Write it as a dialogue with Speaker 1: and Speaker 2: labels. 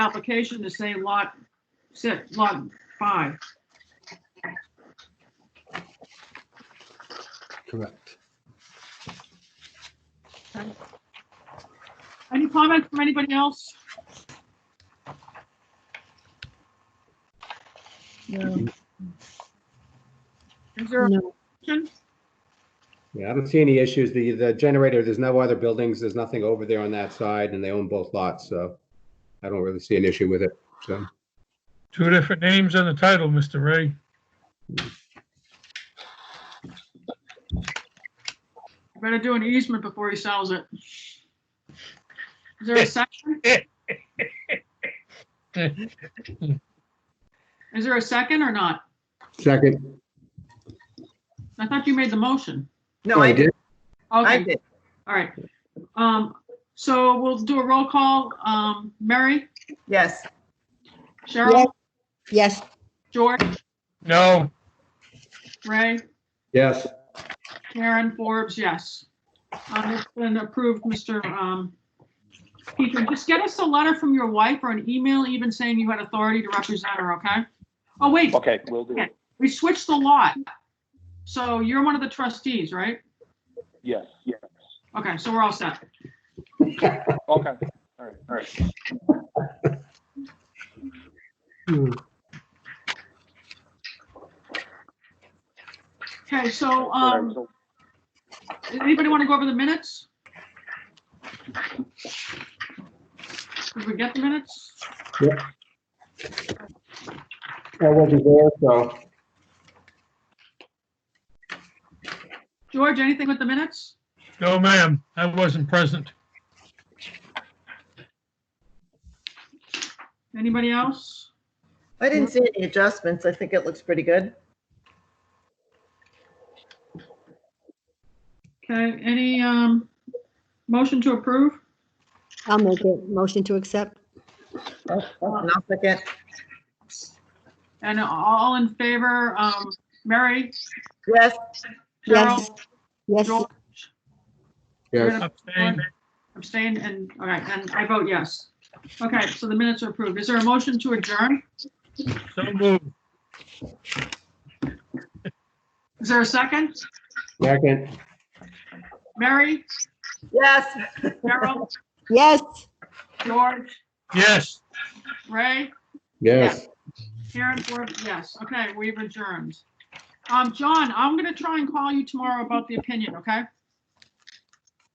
Speaker 1: application to say lot six, lot five.
Speaker 2: Correct.
Speaker 1: Any comments from anybody else?
Speaker 3: No,
Speaker 1: Is there a
Speaker 3: no.
Speaker 1: motion?
Speaker 2: Yeah, I don't see any issues. The, the generator, there's no other buildings, there's nothing over there on that side, and they own both lots, so I don't really see an issue with it, so.
Speaker 4: Two different names on the title, Mr. Ray.
Speaker 1: Better do an easement before he sells it. Is there a second? Is there a second or not?
Speaker 2: Second.
Speaker 1: I thought you made the motion.
Speaker 5: No,
Speaker 2: Oh,
Speaker 5: I did. I
Speaker 1: Okay,
Speaker 5: did.
Speaker 1: all right. Um, so we'll do a roll call. Um, Mary,
Speaker 5: Yes.
Speaker 1: Cheryl,
Speaker 3: Yes,
Speaker 1: George,
Speaker 4: No,
Speaker 1: Ray,
Speaker 2: Yes,
Speaker 1: Karen Forbes, yes. Um, it's been approved, Mr. Um, Peter, just get us a letter from your wife or an email even saying you had authority to represent her, okay? Oh, wait,
Speaker 6: Okay, will do.
Speaker 1: we switched the lot. So you're one of the trustees, right?
Speaker 6: Yes, yes.
Speaker 1: Okay, so we're all set.
Speaker 6: Okay, all right, all right.
Speaker 1: Okay, so,
Speaker 6: All
Speaker 1: um,
Speaker 6: right, so-
Speaker 1: Does Anybody want to go over the minutes? Did we get the minutes?
Speaker 2: I wasn't there, so.
Speaker 1: George, anything with the minutes?
Speaker 4: no, ma'am, I wasn't present.
Speaker 1: Anybody else?
Speaker 5: I didn't see any adjustments. I think it looks pretty good.
Speaker 1: Okay, any, um, motion to approve?
Speaker 3: I'll make a motion to accept.
Speaker 5: And I'll second.
Speaker 1: And all in favor, um, Mary,
Speaker 5: Yes,
Speaker 1: Cheryl,
Speaker 3: Yes, yes,
Speaker 1: George?
Speaker 2: Yes,
Speaker 4: Abstained.
Speaker 1: Abstain and, all right, and I vote yes. Okay, so the minutes are approved. Is there a motion to adjourn?
Speaker 4: So moved.
Speaker 1: Is there a second?
Speaker 2: second.
Speaker 1: Mary,
Speaker 5: yes.
Speaker 1: Cheryl,
Speaker 3: yes.
Speaker 1: George,
Speaker 4: Yes.
Speaker 1: Ray?
Speaker 2: Yes.
Speaker 1: Karen Forbes, yes. Okay, we've adjourned. Um, John, I'm gonna try and call you tomorrow about the opinion, okay?